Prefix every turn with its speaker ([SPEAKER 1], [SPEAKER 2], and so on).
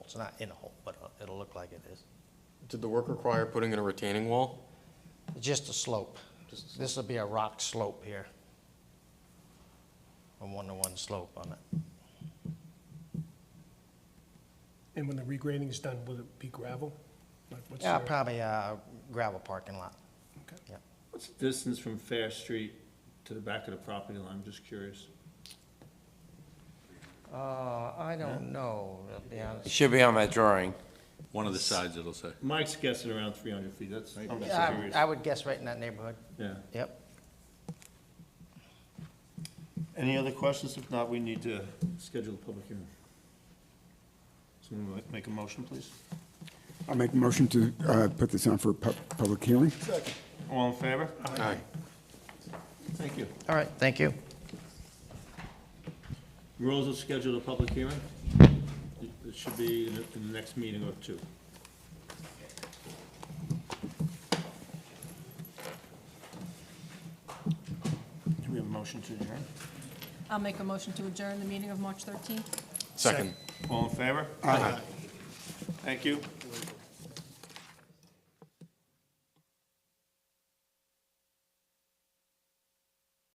[SPEAKER 1] It's not in a hole, but uh, it'll look like it is.
[SPEAKER 2] Did the work require putting in a retaining wall?
[SPEAKER 1] Just a slope.
[SPEAKER 2] Just a slope.
[SPEAKER 1] This will be a rock slope here. A one-to-one slope on it.
[SPEAKER 3] And when the regrading is done, will it be gravel? Like, what's
[SPEAKER 1] Yeah,
[SPEAKER 3] the-
[SPEAKER 1] uh, probably a gravel parking lot.
[SPEAKER 3] Okay.
[SPEAKER 4] What's the distance from Fair Street to the back of the property line? I'm just curious.
[SPEAKER 1] Uh, I don't know, to be honest.
[SPEAKER 5] Should be on that drawing.
[SPEAKER 6] One of the sides, it'll say.
[SPEAKER 4] Mike's guessing around three hundred feet, that's, I'm just
[SPEAKER 1] Yeah,
[SPEAKER 4] curious.
[SPEAKER 1] I I would guess right in that neighborhood.
[SPEAKER 4] Yeah.
[SPEAKER 1] Yep.
[SPEAKER 4] Any other questions? If not, we need to schedule a public hearing. Someone make a motion, please?
[SPEAKER 7] I'll make a motion to uh, put this on for a pub- public hearing.
[SPEAKER 4] All in favor?
[SPEAKER 2] Aye.
[SPEAKER 4] Thank you.
[SPEAKER 1] All right, thank you.
[SPEAKER 4] Rules of schedule a public hearing? It it should be in the in the next meeting or two. Do we have a motion to adjourn?
[SPEAKER 8] I'll make a motion to adjourn the meeting of March 13th.
[SPEAKER 2] Second.
[SPEAKER 4] All in favor? Aye. Thank you.